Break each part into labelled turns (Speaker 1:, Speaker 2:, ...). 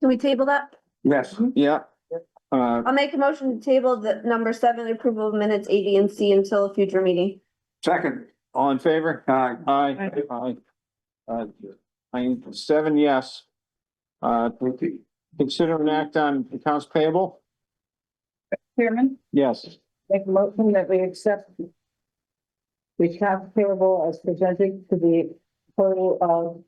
Speaker 1: Can we table that?
Speaker 2: Yes, yeah. Uh,
Speaker 1: I'll make a motion to table the number seven approval of minutes A, B, and C until a future meeting.
Speaker 2: second, all in favor? Aye. Aye. Aye. Uh, I'm seven, yes. Uh, consider an act on accounts payable?
Speaker 3: Chairman,
Speaker 2: Yes.
Speaker 3: make a motion that we accept the accounts payable as presented to the total of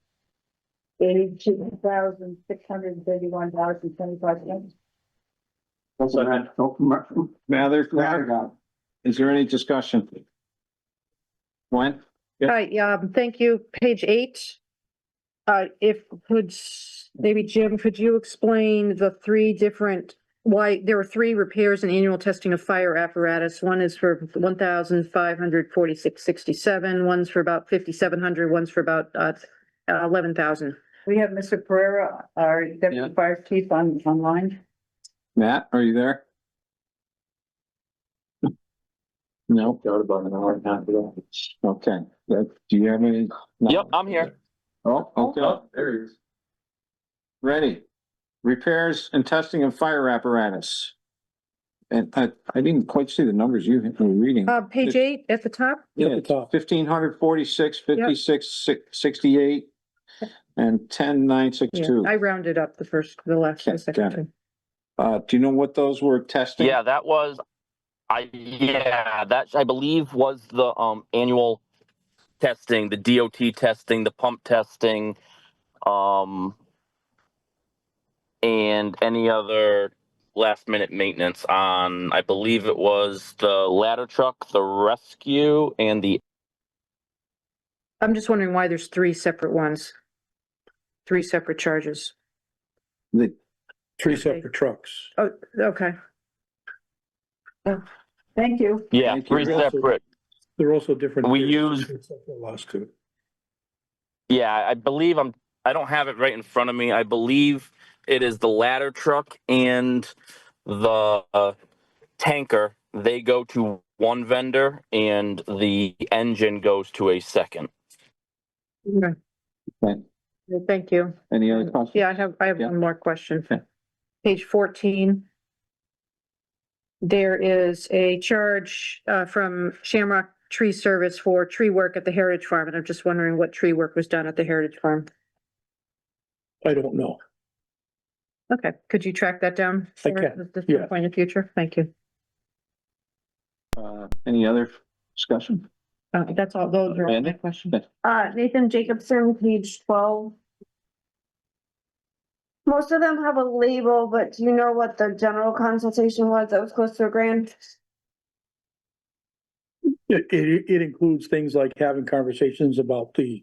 Speaker 3: eighty-two thousand, six hundred and thirty-one dollars and twenty-five cents.
Speaker 2: Mather, Mather, is there any discussion? Gwen? Yeah.
Speaker 4: Hi, yeah, um, thank you. Page eight. Uh, if, could, s- maybe Jim, could you explain the three different, why, there were three repairs and annual testing of fire apparatus. One is for one thousand five hundred forty-six sixty-seven, one's for about fifty-seven hundred, one's for about, uh, eleven thousand.
Speaker 3: We have Mr. Pereira, our deputy fire chief on, online.
Speaker 2: Matt, are you there? No. Got about an hour and a half ago. Okay, that- do you have any?
Speaker 5: Yep, I'm here.
Speaker 2: Oh, okay,
Speaker 6: There he is.
Speaker 2: ready. Repairs and testing of fire apparatus. And I, I didn't quite see the numbers you were reading.
Speaker 4: Uh, page eight at the top?
Speaker 2: Yeah, fifteen hundred forty-six, fifty-six, six, sixty-eight, and ten, nine, six,
Speaker 4: Yeah,
Speaker 2: two.
Speaker 4: I rounded up the first, the last,
Speaker 2: Okay,
Speaker 4: the second
Speaker 2: got it.
Speaker 4: two.
Speaker 2: Uh, do you know what those were testing?
Speaker 5: Yeah, that was, I, yeah, that I believe was the, um, annual testing, the DOT testing, the pump testing, um, and any other last minute maintenance on, I believe it was the ladder truck, the rescue and the,
Speaker 4: I'm just wondering why there's three separate ones. Three separate charges.
Speaker 2: The-
Speaker 7: Three separate trucks.
Speaker 4: Oh, okay.
Speaker 3: Thank you.
Speaker 5: yeah,
Speaker 2: Thank you.
Speaker 5: three separate.
Speaker 7: They're also different.
Speaker 5: We
Speaker 7: periods,
Speaker 5: use-
Speaker 7: three separate Last two.
Speaker 5: Yeah, I believe I'm, I don't have it right in front of me. I believe it is the ladder truck and the uh, tanker. They go to one vendor and the engine goes to a second.
Speaker 4: Okay.
Speaker 2: Right.
Speaker 4: Thank you.
Speaker 2: Any other questions?
Speaker 4: Yeah, I have, I have
Speaker 2: Yeah.
Speaker 4: one more question.
Speaker 2: Okay.
Speaker 4: Page fourteen. There is a charge uh, from Shamrock Tree Service for tree work at the Heritage Farm, and I'm just wondering what tree work was done at the Heritage Farm.
Speaker 7: I don't know.
Speaker 4: Okay, could you track that down?
Speaker 7: I
Speaker 4: for
Speaker 7: can,
Speaker 4: the- the
Speaker 7: yeah.
Speaker 4: Point of future, thank you.
Speaker 2: Uh, any other discussion?
Speaker 4: Uh, That's all, those are all my
Speaker 2: Amanda?
Speaker 4: questions.
Speaker 1: Uh, Nathan Jacobson, page twelve. Most of them have a label, but do you know what the general consultation was that was close to a grand?
Speaker 7: It, it, it includes things like having conversations about the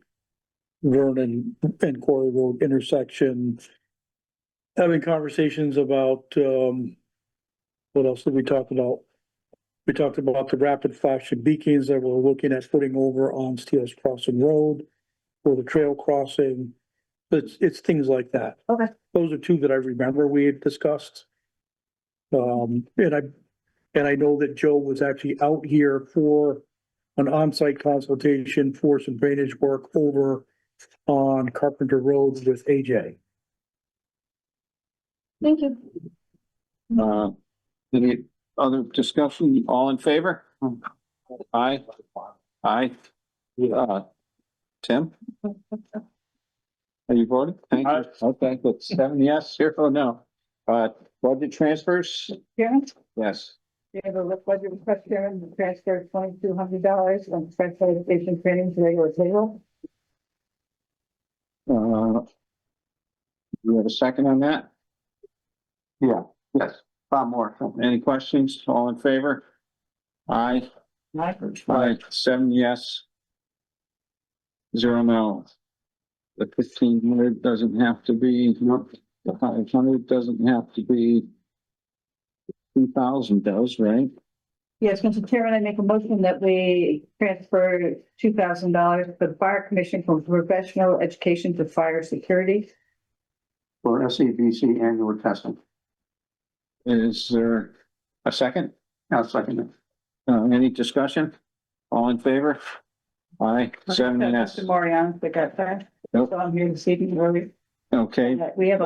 Speaker 7: Vernon and Quarry Road intersection. Having conversations about, um, what else did we talk about? We talked about the rapid flashing beacons that we're looking at putting over on Steele's Crossing Road or the trail crossing. It's, it's things like that.
Speaker 1: Okay.
Speaker 7: Those are two that I remember we had discussed. Um, and I, and I know that Joe was actually out here for an on-site consultation for some drainage work over on Carpenter Road with AJ.
Speaker 1: Thank you.
Speaker 2: Uh, any other discussion? All in favor? Aye. Aye. Uh, Tim? Are you voting? Thank you.
Speaker 6: Aye.
Speaker 2: Okay, good. Seven yes, zero no. Uh, budget transfers?
Speaker 3: Chairman,
Speaker 2: Yes.
Speaker 3: we have a budget request, Chairman, to transfer twenty-two hundred dollars from transfer station training to regular table.
Speaker 2: Uh, you have a second on that? Yeah, yes. Bob Moore. Any questions? All in favor? Aye. Aye, seven yes. Zero no. The fifteen hundred doesn't have to be, nope, the five hundred doesn't have to be. Two thousand does, right?
Speaker 3: Yes, Mr. Chairman, I make a motion that we transfer two thousand dollars for the fire commission from professional education to fire security.
Speaker 6: For SEBC annual testing.
Speaker 2: Is there a second?
Speaker 6: Now, second,
Speaker 2: Uh, any discussion? All in favor? Aye, seven yes.
Speaker 3: Mr. Moriarty, I got that.
Speaker 2: Nope.
Speaker 3: So I'm here this evening early.
Speaker 2: Okay,
Speaker 3: We have a